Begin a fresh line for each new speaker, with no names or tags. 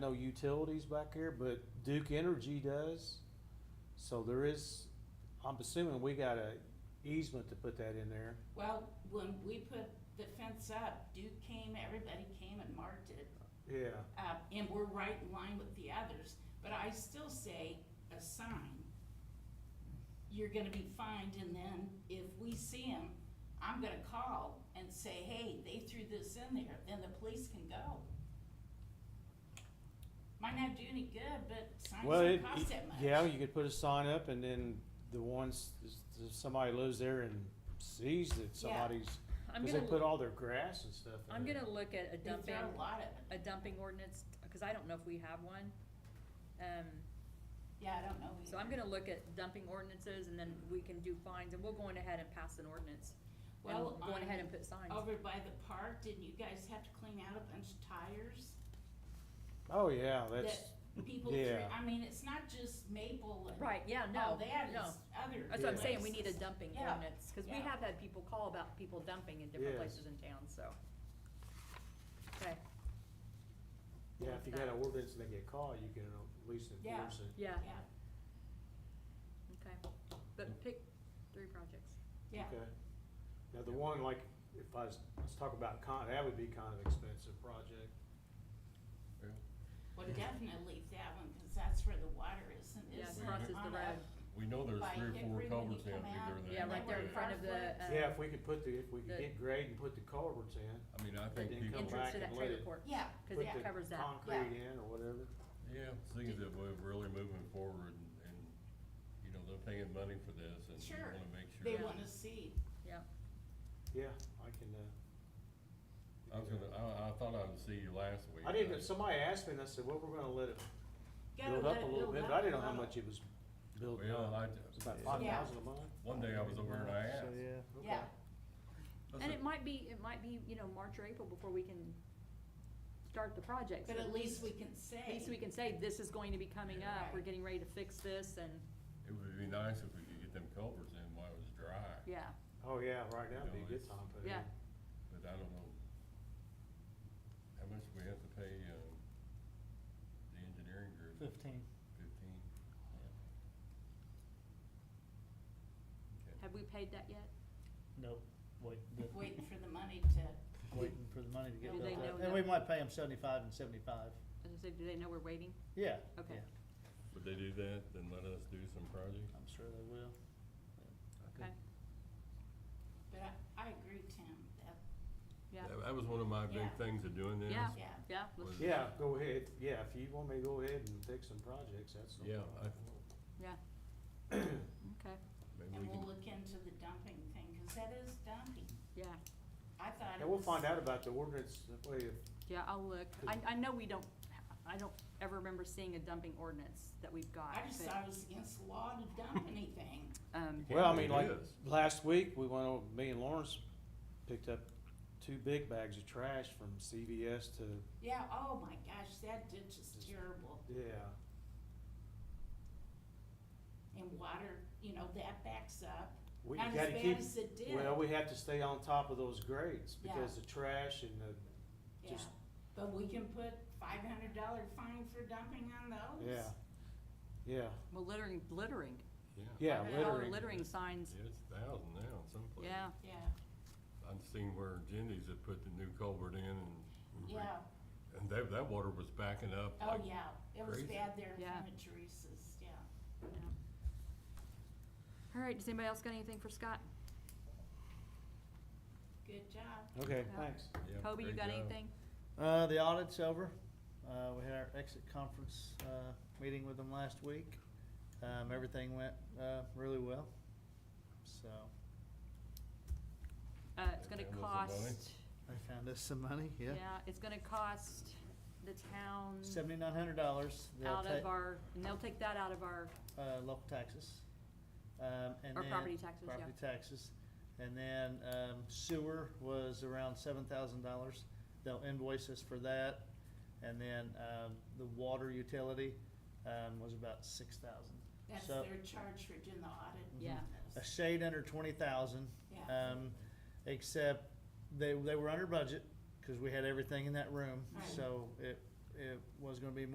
no utilities back here, but Duke Energy does. So there is, I'm assuming we got a easement to put that in there.
Well, when we put the fence up, Duke came, everybody came and marked it,
Yeah.
uh, and we're right in line with the others, but I still say a sign. You're gonna be fined, and then if we see them, I'm gonna call and say, hey, they threw this in there, then the police can go. Might not do any good, but signs
Well, it,
don't cost that much.
yeah, you could put a sign up and then the ones, if somebody lives there and sees that somebody's,
I'm
cause they
gonna,
put
loo-
all their grass and stuff in
I'm
there.
gonna look at a
They
dumping,
throw a lot of it,
a dumping ordinance, cause I don't know if we have one. Um,
yeah, I don't know.
so I'm gonna look at dumping ordinances and then we can do fines and we'll go on ahead and pass an ordinance. And
Well,
go on
on-
ahead and put signs.
Over by the park, didn't you guys have to clean out a bunch of tires?
Oh, yeah, that's,
That people threw,
yeah.
I mean, it's not just Maple and
Right, yeah,
all
no,
that,
no.
it's other
That's what I'm saying, we need a
places.
dumping
Yeah,
ordinance, cause we
yeah.
have had people call about people dumping in different
Yes.
places in town, so. Okay,
yeah, if you got an ordinance and they get caught, you can at least
Yeah.
enforce it.
yeah,
Yeah,
okay, but pick three projects.
yeah,
Okay. Now, the one, like, if I was, let's talk about con, that would be kind of expensive project.
well, definitely that one, cause that's where the water is and
Yeah,
is
crosses the
on
road.
up
We know there's
by
three or
Hickory
four
when you
culverts in
come out.
either there.
Yeah, right there in
Yeah.
front of the,
Conflict.
uh.
Yeah, if we could put the, if we could
the-
get grade and put the culverts in,
I mean, I
They
think
didn't
people,
come
entrance
back
to that
and let
trailer
it-
court,
Yeah,
cause
put
that
the
covers that.
concrete in or whatever.
yeah, things that we're really moving forward and, and, you know, they're paying money for this and we
Sure.
wanna make sure.
they
Yeah.
wanna see,
Yeah, I can, uh.
I was gonna, I, I thought I would see you last week.
I didn't,
but-
somebody asked me and I said, well, we're gonna let it
gotta
build
let
up a
it
little
build
bit,
up
but I didn't know
a
how
little.
much it was building
Well,
up.
I,
It's about
ju-
five
Yeah.
thousand a month.
one day I was over there and I asked.
So, yeah.
Okay.
Yeah,
I
And
said,
it might be, it might be, you know, March or April before we can start the project.
but
so
at least we can
At least we
say,
can say, this is going to be coming up, we're
Right.
getting ready to fix this, and,
It would be nice if we could get them culverts in while it was dry,
yeah,
Oh, yeah, right now would be a good time for it.
yeah.
but I don't know how much we have to pay, um, the engineering group,
Fifteen.
fifteen? Okay.
Have we paid that yet?
No, wait, the,
waiting for the money to,
waiting for the money to get
Do Oh, they
built up.
know
And we
that-
might pay them seventy-five and
I
seventy-five.
was gonna say, do they know we're waiting?
Yeah.
Okay.
yeah,
Would they do that, then let us do some projects?
I'm sure they will.
Okay,
but I, I agree, Tim, that,
yeah,
That- That was one of my big
Yeah.
things of doing this.
Yeah.
yeah,
yeah, let's,
was-
Yeah, go ahead, yeah, if you want me to go ahead and fix some projects, that's. no
Yeah,
problem.
okay,
Maybe we
and we'll
can,
look into the dumping thing, cause that is dumping,
yeah,
I thought
Yeah,
it
we'll
was.
find out about the ordinance, that way, if-
yeah, I'll look. I, I know we don't, I don't ever remember seeing a dumping ordinance that we've got,
I just
but,
thought it was against the law to dump anything.
um,
Yeah,
well, I
it
mean, like,
is.
last week, we went over, me and Lawrence picked up two big bags of trash from CVS to,
Yeah, oh my gosh, that ditch is terrible.
yeah.
And water, you know, that backs up.
We
Not
gotta
as
keep-
bad as it did,
Well, we have to stay on top of those grades,
Yeah.
because the trash and the
yeah.
just-
But we can put five hundred dollar fine for dumping on those.
Yeah, yeah,
well, littering, littering.
yeah,
yeah,
Yeah.
Our
littering.
Littering signs,
yeah, it's a thousand now in some places.
yeah,
Yeah,
I've seen where Jindy's had put the new culvert in and. re-
yeah,
And that, that water was backing up
oh
like,
yeah, it was
crazy.
bad there in
Yeah.
front of Teresa's, yeah.
yeah. All right, does anybody else got anything for Scott?
Good job.
Okay,
Yeah.
thanks.
yeah,
Kobe, you
great
got
job.
anything?
Uh, the audit's over. Uh, we had our exit conference, uh, meeting with them last week. Um, everything went, uh, really well, so
Uh, it's gonna
Family money.
cost,
they found us some money, yeah.
yeah, it's gonna cost the town
Seventy-nine hundred dollars. They'll
out
take,
of our, and they'll take that out of our,
uh, local taxes. Um, and
our
then.
property taxes, yeah.
property taxes. And then um, sewer was around seven thousand dollars. They'll invoice us for that. And then um, the water utility um, was about six thousand.
That's
So-
their charge for doing the audit.
Yeah.
A shade under twenty thousand,
Yeah,
um, except they, they were under budget because we had everything in that room.
Right.
So it, it was gonna be